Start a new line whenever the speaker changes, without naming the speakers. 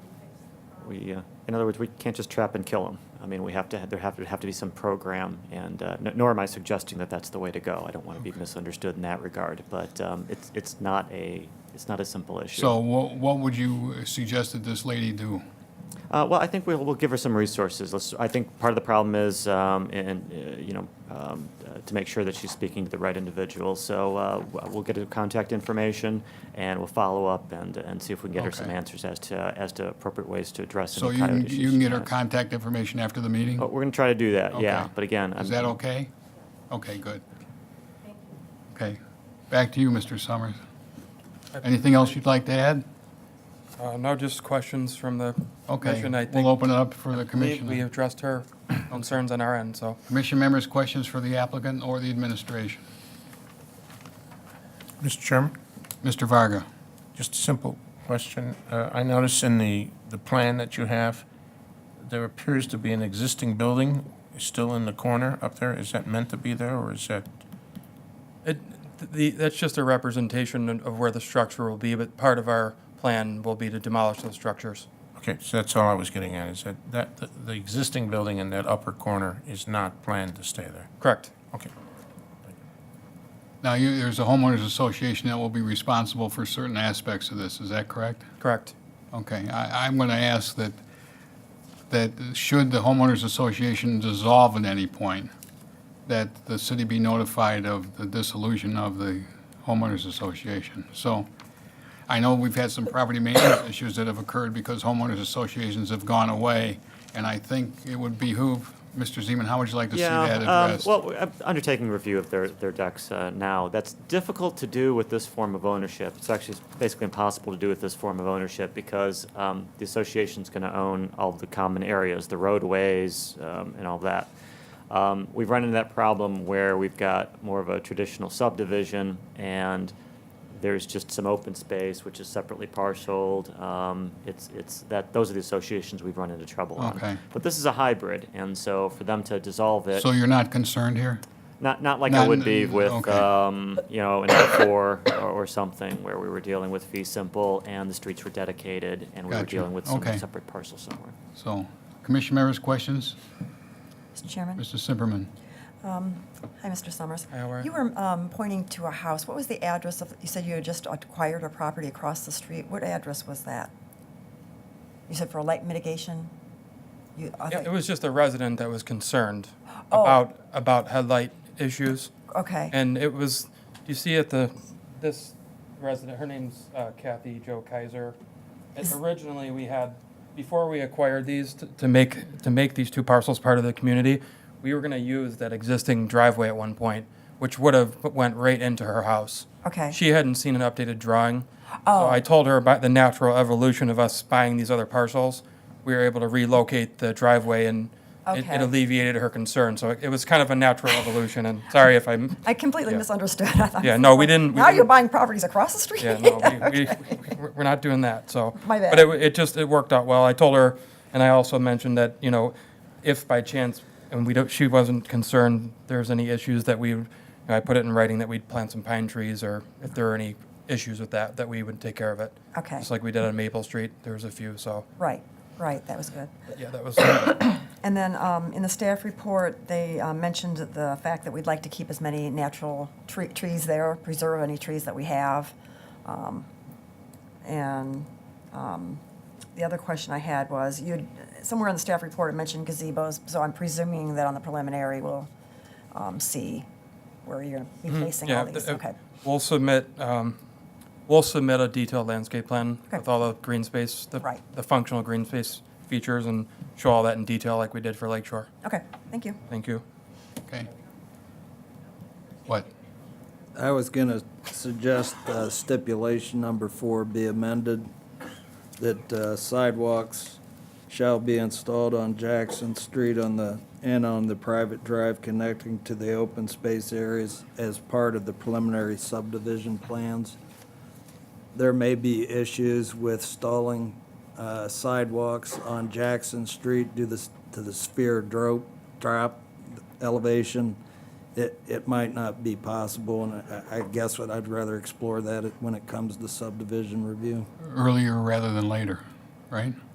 We, uh, in other words, we can't just trap and kill them. I mean, we have to, there have to, have to be some program, and uh, n- nor am I suggesting that that's the way to go. I don't want to be misunderstood in that regard, but um, it's, it's not a, it's not a simple issue.
So what, what would you suggest that this lady do?
Uh, well, I think we'll, we'll give her some resources. Let's, I think part of the problem is, um, and, uh, you know, um, uh, to make sure that she's speaking to the right individual. So uh, w- we'll get her contact information and we'll follow up and, and see if we can get her some
Okay.
answers as to, as to appropriate ways to address
So
any
you,
coyote
can-
issues.
you can get her
she has.
contact information after the meeting?
Oh, We're going to try to do that, yeah.
Okay.
But again, I'm.
Is that okay? Okay, good. Okay, back to you, Mr. Summers. Anything else you'd like to add?
Uh, No, just questions from the
Okay,
commission. I
we'll
think
open it up for the
we- we
commission.
addressed her concerns on our end, so.
Commission members, questions for the applicant or the administration?
Mr. Chairman,
Mr. Varga?
just a simple question. Uh, I notice in the, the plan that you have, there appears to be an existing building still in the corner up there. Is that meant to be there, or is that,
It, the, that's just a representation of where the structure will be, but part of our plan will be to demolish those structures.
okay, so that's all I was getting at, is that, that, the- the existing building in that upper corner is not planned to stay there?
Correct.
Okay.
Now, you, there's a homeowners association that will be responsible for certain aspects of this, is that correct?
Correct.
Okay, I, I'm going to ask that, that should the homeowners association dissolve at any point, that the city be notified of the dissolution of the homeowners association. So I know we've had some property maintenance issues that have occurred because homeowners associations have gone away, and I think it would behoove, Mr. Zeman, how would you like to see
Yeah,
that
um,
addressed?
Well, we're, uh, undertaking a review of their, their decks uh, now, that's difficult to do with this form of ownership. It's actually basically impossible to do with this form of ownership because um, the association's going to own all the common areas, the roadways, um, and all that. Um, we've run into that problem where we've got more of a traditional subdivision and there's just some open space which is separately parceled. Um, it's it's that those are the associations we've run into trouble on.
Okay.
But this is a hybrid, and so for them to dissolve it,
So you're not concerned here?
not not like I
Not-
would be with
okay.
um, you know an L four or, or something where we were dealing with fee simple and the streets were dedicated and we were
Gotcha.
dealing with some
Okay.
separate parcel somewhere.
So, commission members, questions?
Mr. Chairman?
Mr. Simperman?
Hi, Mr. Summers.
Hi, how are you?
You were um, pointing to a house. What was the address of, you said you had just acquired a property across the street. What address was that? You said for light mitigation? You- I
Yeah,
thought-
It was just a resident that was concerned
Oh.
about, about headlight issues.
Okay,
And it was, you see at the, this resident, her name's uh, Kathy Joe Kaiser. And
Is-
Originally, we had, before we acquired these, to- to make, to make these two parcels part of the community, we were gonna use that existing driveway at one point, which would have went right into her house.
okay. Oh.
She hadn't seen an updated drawing. So I told her about the natural evolution of us buying these other parcels. We were able to relocate the driveway and it-
Okay.
it alleviated her concern. So it- it was kind of a natural evolution, and sorry if I'm
I completely
yeah.
misunderstood. I thought-
Yeah, no, we didn't- we
Now you're
didn't-
buying properties across the street?
Yeah, no, we, we,
Okay.
we're- we're not doing that, so.
My bad.
But it, wa- it just, it worked out well. I told her, and I also mentioned that, you know, if by chance, and we don't, she wasn't concerned there's any issues that we, would- you know, I put it in writing that we'd plant some pine trees, or if there are any issues with that, that we would take care of it.
Okay.
Just like we did on Maple Street, there was a few, so,
Right, right, that was good.
yeah, that was,
And then um, in the staff report, they uh, mentioned the fact that we'd like to keep as many natural tre- trees there, preserve any trees that we have. Um, And um, the other question I had was, you, somewhere in the staff report, it mentioned gazebos, so I'm presuming that on the preliminary, we'll um, see where you're replacing
yeah. uh,
all these,
th-
okay.
We'll submit, um, we'll submit a detailed landscape plan
Okay.
with all the green space, the,
Right.
the functional green space features, and show all that in detail like we did for Lake Shore.
Okay, thank you.
Thank you.
Okay. What?
I was going to suggest uh, stipulation number four be amended, that uh, sidewalks shall be installed on Jackson Street on the, and on the private drive connecting to the open space areas as part of the preliminary subdivision plans. There may be issues with stalling uh, sidewalks on Jackson Street due this- to the sphere drop, drop elevation. It, it might not be possible, and I, I guess what I'd rather explore that when it comes to subdivision review.
Earlier rather than later, right?